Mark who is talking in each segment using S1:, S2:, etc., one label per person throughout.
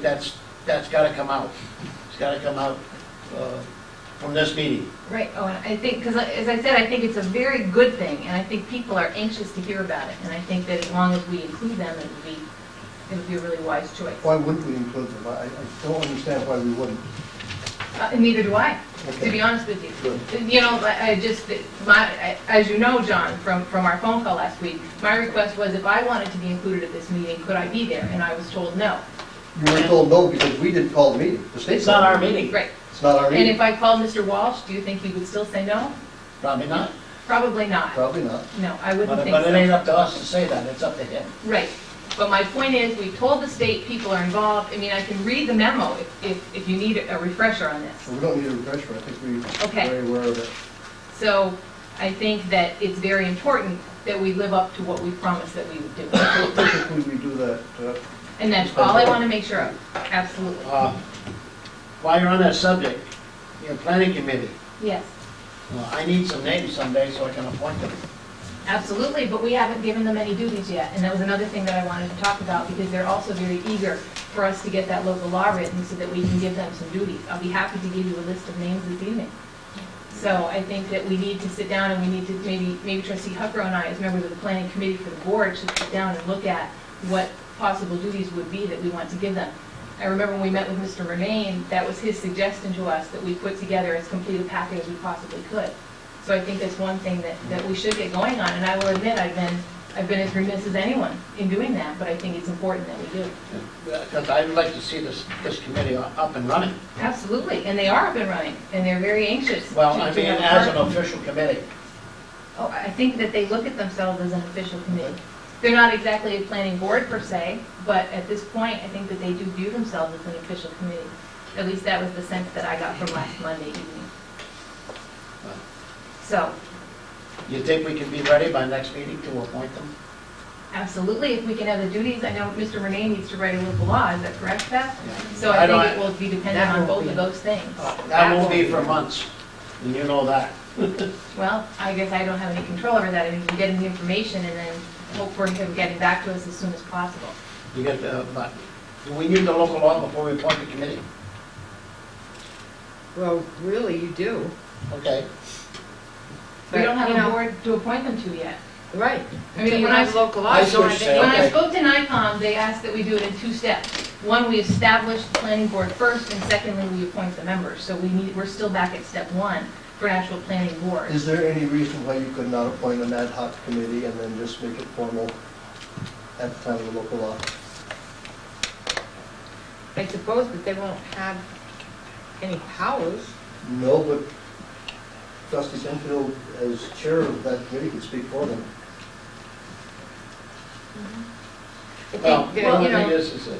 S1: That's, that's gotta come out. It's gotta come out uh, from this meeting.
S2: Right, oh, and I think, because as I said, I think it's a very good thing, and I think people are anxious to hear about it, and I think that as long as we include them, it would be, it would be a really wise choice.
S3: Why wouldn't we include them? I, I don't understand why we wouldn't.
S2: Uh, and Neither do I, to be
S3: Okay.
S2: honest with you.
S3: Good.
S2: You know, I I just, my, I- as you know, John, from, from our phone call last week, my request was if I wanted to be included at this meeting, could I be there? And I was told no.
S3: You were told no because we didn't call the meeting. The state
S1: It's not
S3: called
S1: our
S3: it.
S1: meeting,
S2: Right,
S3: It's not our
S2: and if
S3: meeting.
S2: I called Mr. Walsh, do you think he would still say no?
S1: probably not.
S2: Probably not.
S3: Probably not.
S2: No, I
S1: But
S2: wouldn't think so.
S1: but it ain't up to us to say that, it's up to him.
S2: Right, but my point is, we told the state people are involved, I mean, I can read the memo if, if, if you need a refresher on this.
S3: We don't need a refresher. I think we're
S2: Okay.
S3: very aware of it.
S2: So I think that it's very important that we live up to what we promised that we would do.
S3: Typically, we do that, uh,
S2: And that's all I want to make sure of, absolutely.
S1: Uh, While you're on that subject, your planning committee,
S2: Yes,
S1: uh, I need some names someday so I can appoint them.
S2: absolutely, but we haven't given them any duties yet. And that was another thing that I wanted to talk about, because they're also very eager for us to get that local law written so that we can give them some duties. I'll be happy to give you a list of names this evening. So I think that we need to sit down and we need to, maybe, maybe trustee Huckrow and I, as members of the planning committee for the board, should sit down and look at what possible duties would be that we want to give them. I remember when we met with Mr. Remain, that was his suggestion to us, that we put together as complete a packet as we possibly could. So I think that's one thing that, that we should get going on, and I will admit, I've been, I've been as remiss as anyone in doing that, but I think it's important that we do.
S1: Because I'd like to see this, this committee up and running.
S2: Absolutely, and they are up and running, and they're very anxious. to-
S1: Well, I
S2: to
S1: mean,
S2: have a
S1: as an
S2: part.
S1: official committee.
S2: Oh, I think that they look at themselves as an official committee. They're not exactly a planning board per se, but at this point, I think that they do view themselves as an official committee. At least that was the sense that I got from last Monday evening. So,
S1: You think we can be ready by next meeting to appoint them?
S2: absolutely, if we can have the duties, I know Mr. Renee needs to write a local law, is that correct, Beth? So
S1: I
S2: I think
S1: don't-
S2: it will be dependent
S4: that
S2: on
S4: won't
S2: both of
S4: be-
S2: those things.
S1: That won't be for months, and you know that.
S2: Well, I guess I don't have any control over that, I mean, we get the information and then hope for him getting back to us as soon as possible.
S1: You get, the- uh, but, do we need the local law before we appoint the committee?
S4: Well, really, you do.
S1: Okay.
S2: We don't have
S4: But, you
S2: a
S4: know-
S2: board to appoint them to yet.
S4: Right.
S2: I mean,
S4: You
S2: when I-
S4: have local law,
S1: I
S4: you don't
S1: switched
S4: have any-
S2: When I
S1: Okay.
S2: spoke to NICOM, they asked that we do it in two steps. One, we establish the planning board first, and secondly, we appoint the members. So we need, we're still back at step one for an actual planning board.
S3: Is there any reason why you could not appoint an ad hoc committee and then just make it formal at the time of the local law?
S4: I suppose, but they won't have any powers.
S3: No, but trustee Penfield, as chair of that committee, could speak for them.
S4: I
S1: Well,
S4: think,
S1: the
S4: that,
S1: only
S4: you
S1: thing
S4: know,
S1: is, is that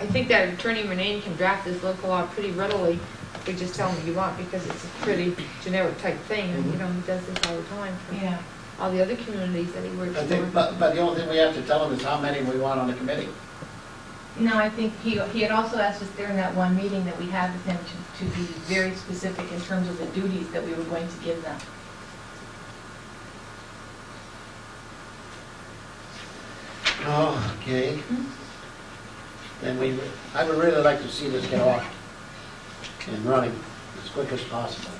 S4: I think that Attorney Manane can draft this local law pretty readily. if We just tell him you want, because it's a pretty generic type thing, and
S1: Mm-hmm.
S4: you know, he does this all the time for
S2: Yeah.
S4: all the other communities that he works
S1: I think,
S4: for.
S1: but, but the only thing we have to tell them is how many we want on the committee.
S2: No, I think he, he had also asked us during that one meeting that we had with him to, to be very specific in terms of the duties that we were going to give them.
S1: Okay. Then we, I would really like to see this get off and running as quick as possible,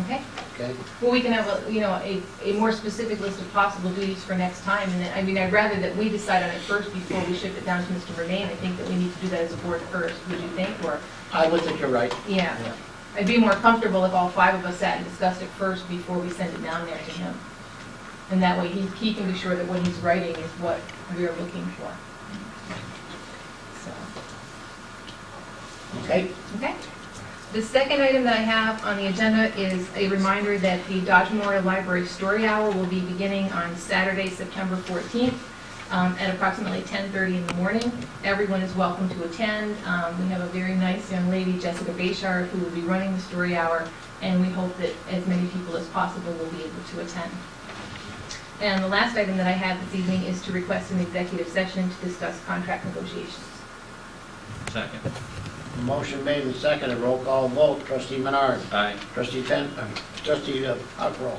S2: Okay?
S1: okay?
S2: Well, we can have, a you know, a, a more specific list of possible duties for next time, and then, I mean, I'd rather that we decide on it first before we ship it down to Mr. Remain. I think that we need to do that as a board first, would you think, or,
S1: I would think you're right.
S2: yeah.
S1: Yeah.
S2: I'd be more comfortable if all five of us sat and discussed it first before we send it down there to him. And that way, he, he can be sure that what he's writing is what we're looking for. So.
S1: Okay?
S2: Okay. The second item that I have on the agenda is a reminder that the Dodge Memorial Library Story Hour will be beginning on Saturday, September 14th, um, at approximately 10:30 in the morning. Everyone is welcome to attend. Um, We have a very nice young lady, Jessica Bayshard, who will be running the story hour, and we hope that as many people as possible will be able to attend. And the last item that I have this evening is to request an executive session to discuss contract negotiations.
S5: Second.
S1: Motion made and seconded, roll call vote, trustee Menard,
S5: Aye.
S1: trustee Pen, uh, trustee uh, Huckrow.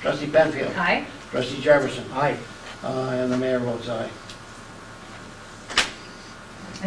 S1: Trustee Penfield,
S2: Aye?
S1: trustee Jefferson. Aye. Uh, and the mayor votes aye.